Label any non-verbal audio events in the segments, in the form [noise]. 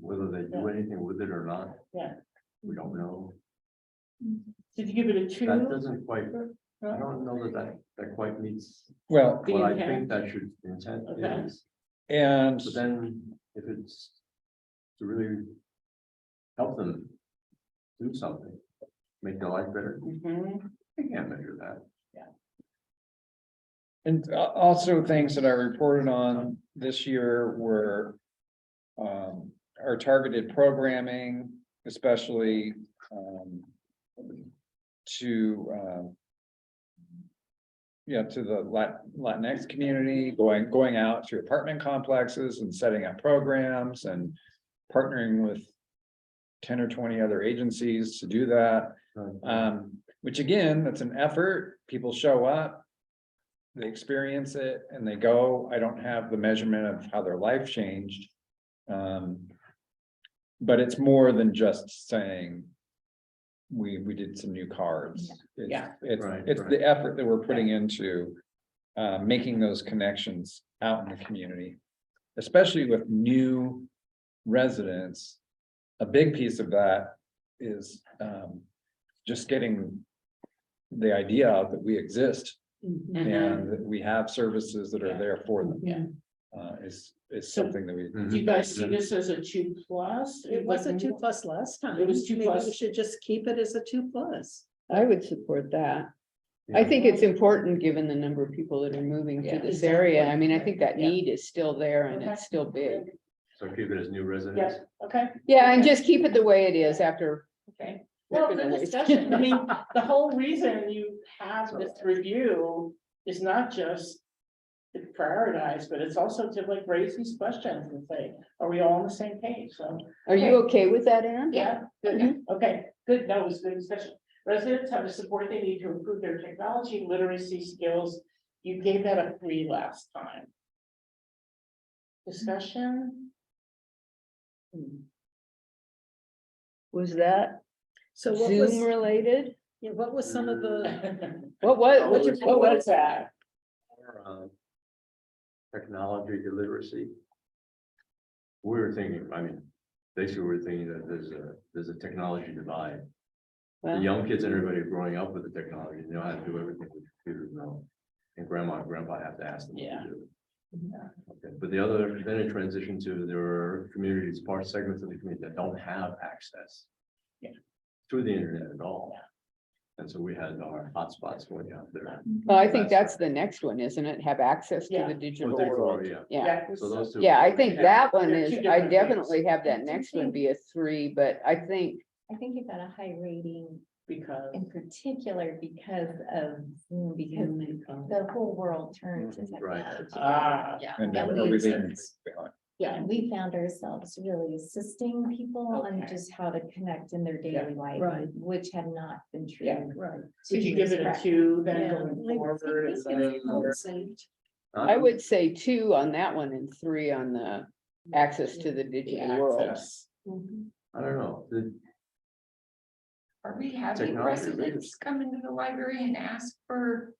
whether they do anything with it or not. Yeah. We don't know. Did you give it a two? That doesn't quite, I Huh? don't know that that, that quite meets Well, The what I intent. think that should intent Okay. is. and So then if it's to really help them do something, make their life better, Mhm. they can't measure that. And a- also things that I reported on this year were. Um, our targeted programming, especially, um. To, um. Yeah, to the Lat- Latinx community, going, going out to apartment complexes and setting up programs and partnering with. Ten or twenty other agencies to do that. Uh, Um, which again, that's an effort, people show up. They experience it and they go, I don't have the measurement of how their life changed. Um. But it's more than just saying. We, we did some new cards. It's- Yeah. It's, Right, it's right. the effort that we're putting into. Uh, making those connections out in the community, especially with new residents. A big piece of that is, um, just getting the idea out that we exist Mhm. and that we have services that are there for them, Yeah, Mm-hmm. uh, is, is So- something that we, do you guys see this as a two plus? It was a two plus last time. It was two Maybe We plus. should just keep it as a two plus. I would support that. I think it's important, given the number of people that are moving to Yeah. this area. I mean, I think that Yeah. need is still there and Okay. it's still big. So keep it as new residents. Yes, okay, Yeah, and just keep it the way it is after. okay. Well, Good the night. discussion, I mean, the whole reason you have this review is not just. To prioritize, but it's also to like raise these questions and say, are we all on the same page? So, Are you okay with that, Aaron? yeah, Mm-hmm. good, okay, good, that was good discussion. Residents have the support they need to improve their technology literacy skills. You gave that a three last time. Discussion, Was that So what was, Zoom related? yeah, what was some of the, What, what, What what's you- your, what was Oh, that? Or, um, Technology illiteracy. We We're thinking, I mean, basically, we're thinking that there's a, there's a technology divide. The Well. young kids and everybody growing up with the technology, they know how to do everything with computers now. And grandma and grandpa have to ask them. what to Yeah. do. Mm-hmm. Okay, But the other, then it transitioned to there are communities, parts, segments of the community that don't have access. Yeah. To the internet at all. And so we had our hotspots going out there. well, I think that's the next one, isn't it? Have access to Yeah. the digital Oh, digital, world. yeah. Yeah, So those two. yeah, I think Yeah. that one They're is, two I different things. definitely have that next one be a three, but I think, I think it got a high rating Because. in particular because of, Zoom, because the whole world turned Mm-hmm. to Mhm, right. technology. Ah, Yeah. and that that we we're leaving experienced. behind. yeah, And we found ourselves really assisting people on Okay. just how to connect in their Yeah. daily life. Right. Which had not been Yeah. true. right? Would you give it a two then going forward? is that- Well, I would say two on that one and three on the access to the digital world. Access. Mm-hmm. I don't know, the, Are we having Technology, right? residents come into the library and ask for?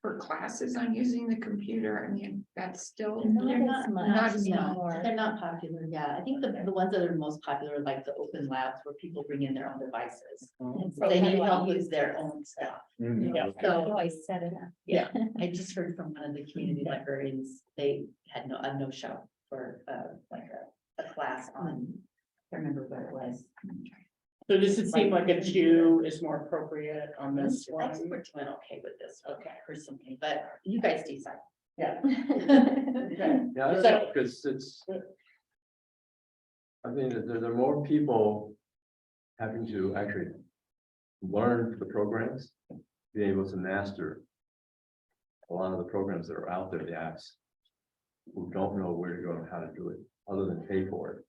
For classes on using the computer, I mean, that's still. Not as much Not as anymore. They're not popular, yeah. I think the, the ones that are most popular, are like the open labs where people bring in their own devices. And so They how need do I help use with their this? own stuff. [laughs] Mm. Yeah. How do I set it up? I just heard from one of the community librarians, they had no, a no-show for, uh, like a, a class on, I can't remember what it was. So does it seem like a two is more appropriate on this I one? just went okay with this, one Okay. personally, but you guys decide. Yeah. Yeah. yeah, I don't [laughs] know, because it's. I think that there there are more people having to actually learn the programs, be able to master. A lot of the programs that are out there, the apps, who don't know where to go and how to do it, other than pay for it.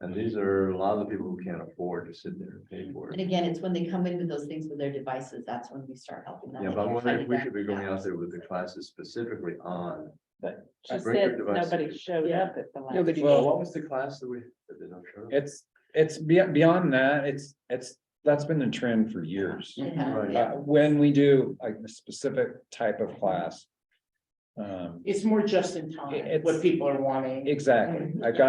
And these are a lot of the people who can't afford to sit there and pay for And it. again, it's when they come in with those things with their devices, that's when we start helping them. Yeah, like but I you're wonder trying if to we get should be going them out there with the classes specifically on. She Break your said device. nobody showed Yeah. up at the last. Nobody. Well, What was the class that we? that they don't show? It's, it's be- beyond that, it's, it's, that's been the trend for years. It has, Right. Uh, yeah. when we do like a specific type of class. Um, It's more just in time, It's- what people are wanting. exactly, I've got